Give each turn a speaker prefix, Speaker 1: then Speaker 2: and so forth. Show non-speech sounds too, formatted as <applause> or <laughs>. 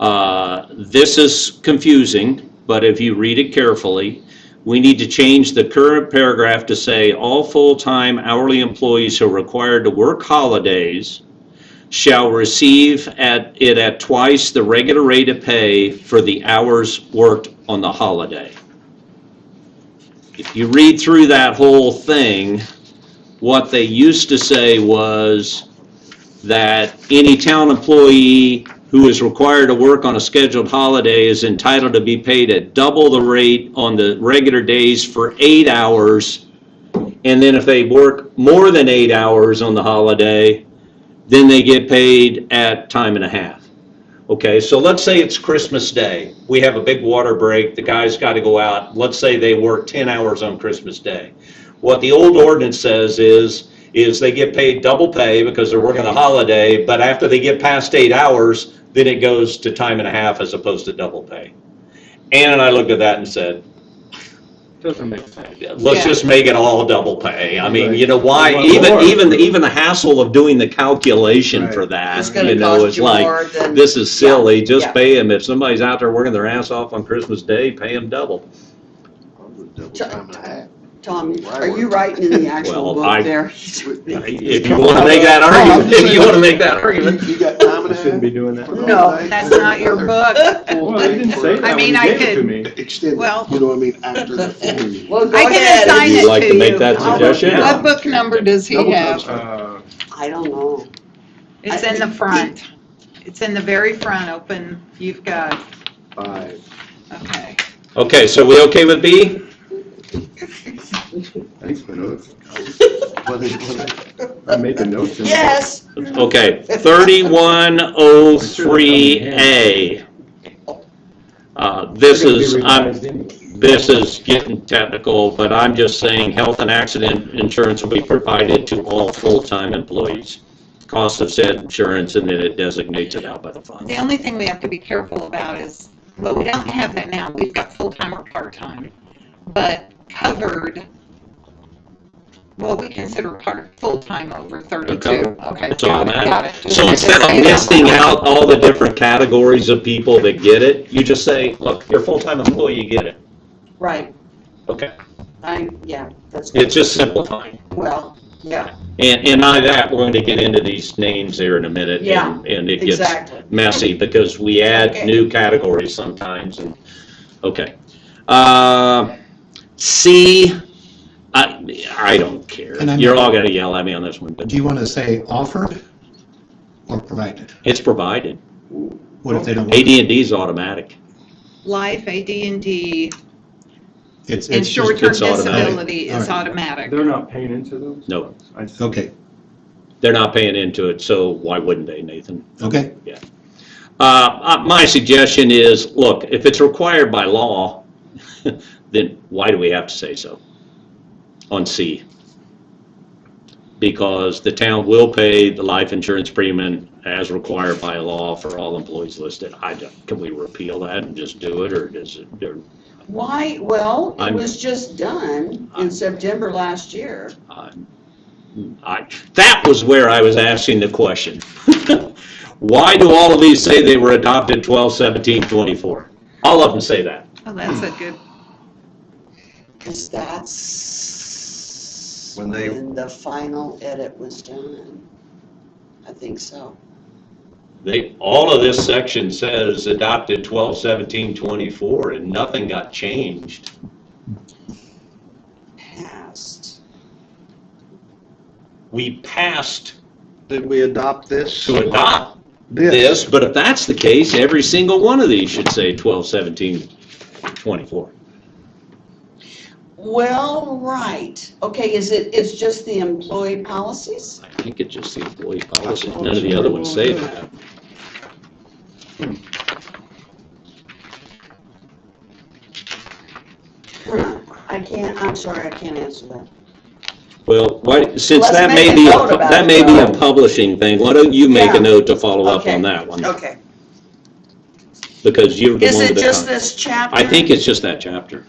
Speaker 1: Uh, This is confusing, but if you read it carefully, we need to change the current paragraph to say, "All full-time hourly employees who are required to work holidays shall receive at, it at twice the regular rate of pay for the hours worked on the holiday." If you read through that whole thing, what they used to say was that any town employee who is required to work on a scheduled holiday is entitled to be paid at double the rate on the regular days for eight hours. And then if they work more than eight hours on the holiday, then they get paid at time and a half. Okay, so let's say it's Christmas Day. We have a big water break. The guys got to go out. Let's say they work 10 hours on Christmas Day. What the old ordinance says is, is they get paid double pay because they're working a holiday, but after they get past eight hours, then it goes to time and a half as opposed to double pay. Ann and I looked at that and said,
Speaker 2: Doesn't make sense.
Speaker 1: let's
Speaker 3: Yeah.
Speaker 1: just make it all double pay. I mean,
Speaker 2: Right.
Speaker 1: you know, why,
Speaker 2: Well,
Speaker 1: even,
Speaker 2: more.
Speaker 1: even, even the hassle of doing the calculation for
Speaker 2: Right.
Speaker 1: that,
Speaker 3: It's
Speaker 1: you
Speaker 3: gonna
Speaker 1: know,
Speaker 3: cost
Speaker 1: is
Speaker 3: you
Speaker 1: like,
Speaker 3: more than.
Speaker 1: this is silly, just
Speaker 3: yeah.
Speaker 1: pay them, if somebody's out there working their ass off on Christmas Day, pay them double.
Speaker 4: Double time and a half.
Speaker 3: Tom, are you writing in the actual
Speaker 1: Well, I-
Speaker 3: book there?
Speaker 1: If you wanna make
Speaker 2: <laughs>
Speaker 1: that argument, if you wanna make that argument.
Speaker 4: You got time and
Speaker 2: We
Speaker 4: a half?
Speaker 2: shouldn't be doing that.
Speaker 3: No, that's not your book.
Speaker 2: Well, they didn't say that.
Speaker 5: I mean,
Speaker 2: when
Speaker 5: I
Speaker 2: you gave it
Speaker 5: could-
Speaker 2: to me.
Speaker 4: Extend
Speaker 5: Well-
Speaker 4: it, you know what I mean,
Speaker 3: <laughs>
Speaker 4: after the four years.
Speaker 3: Well, go
Speaker 5: I can
Speaker 3: ahead.
Speaker 5: assign it
Speaker 1: You'd like to
Speaker 5: to
Speaker 1: make
Speaker 5: you.
Speaker 1: that
Speaker 3: I'll-
Speaker 1: suggestion?
Speaker 2: Yeah.
Speaker 5: What book number does he
Speaker 4: Double
Speaker 5: have?
Speaker 2: Uh,
Speaker 3: I don't know.
Speaker 5: It's in the front. It's in the very front, open, you've got,
Speaker 4: Five.
Speaker 5: okay.
Speaker 1: Okay, so we okay with B?
Speaker 2: Thanks for
Speaker 5: <laughs>
Speaker 2: notes.
Speaker 4: What is- what
Speaker 2: I'm making notes. in-
Speaker 3: Yes.
Speaker 1: Okay, thirty-one oh three A. Uh, this
Speaker 2: They're gonna be
Speaker 1: is, I'm,
Speaker 2: revised anyway.
Speaker 1: this is getting technical, but I'm just saying health and accident insurance will be provided to all full-time employees. Cost of said insurance, and then it designates it out by the fund.
Speaker 5: The only thing we have to be careful about is, well, we don't have that now, we've got full-time or part-time, but covered, well, we consider part, full-time over thirty-two. Okay,
Speaker 1: That's all
Speaker 5: got it, got
Speaker 1: that.
Speaker 5: it.
Speaker 1: So instead of listing out all the different categories of people that get it, you just say, look, you're a full-time employee, you get it.
Speaker 3: Right,
Speaker 1: Okay.
Speaker 3: I, yeah, that's,
Speaker 1: It's just simplifying.
Speaker 3: well, yeah,
Speaker 1: And, and not that, we're going to get into these names here in a minute.
Speaker 3: Yeah,
Speaker 1: and- And it gets
Speaker 3: exactly.
Speaker 1: messy because we add
Speaker 3: Okay.
Speaker 1: new categories sometimes and, okay. Uh, C, I, I don't care.
Speaker 6: Can I
Speaker 1: You're
Speaker 6: make-
Speaker 1: all going to yell at me on this one, but
Speaker 6: Do you want to say offered or provided?
Speaker 1: it's provided.
Speaker 6: What if they don't?
Speaker 1: ad and D's automatic.
Speaker 5: Life, AD&D,
Speaker 6: It's,
Speaker 5: and
Speaker 6: it's just,
Speaker 5: short-term
Speaker 1: it's automatic.
Speaker 5: disability is
Speaker 6: All right.
Speaker 5: automatic.
Speaker 2: They're not paying into those?
Speaker 1: No.
Speaker 2: I see.
Speaker 6: okay,
Speaker 1: They're not paying into it, so why wouldn't they, Nathan?
Speaker 6: okay,
Speaker 1: Uh, uh, My suggestion is, look, if it's required by law, <laughs> then why do we have to say so on C? Because the town will pay the life insurance premium as required by law for all employees listed. I don't, can we repeal that and just do it, or does it, or-
Speaker 3: Why, well, it
Speaker 1: I'm-
Speaker 3: was just done in September last year.
Speaker 1: I'm- uh, I, that was where I was asking the question. <laughs> Why do all of these say they were adopted 12, 17, 24? All of them say that.
Speaker 5: Oh, that's a good,
Speaker 3: Because that's
Speaker 4: When they-
Speaker 3: when the final edit was done. I think so.
Speaker 1: They, all of this section says adopted 12, 17, 24, and nothing got changed.
Speaker 3: Passed.
Speaker 1: We passed
Speaker 4: Did we adopt this?
Speaker 1: to adopt this, but if that's the case, every single one of these should say 12, 17, 24.
Speaker 3: Well, right. Okay, is it, it's just the employee policies?
Speaker 1: I think it's just the employee policy. None of the other ones say that.
Speaker 3: Huh, I can't, I'm sorry, I can't answer that.
Speaker 1: Well, why, since
Speaker 3: Let's
Speaker 1: that
Speaker 3: make
Speaker 1: may
Speaker 3: a
Speaker 1: be,
Speaker 3: note
Speaker 1: a-
Speaker 3: about
Speaker 1: that
Speaker 3: it,
Speaker 1: may be a
Speaker 3: though.
Speaker 1: publishing thing, why don't you make
Speaker 3: Yeah.
Speaker 1: a note to follow up
Speaker 3: Okay.
Speaker 1: on that one?
Speaker 3: Okay.
Speaker 1: Because you're the
Speaker 3: Is
Speaker 1: one
Speaker 3: it
Speaker 1: with the
Speaker 3: just
Speaker 1: con-
Speaker 3: this chapter?
Speaker 1: I think it's just that chapter.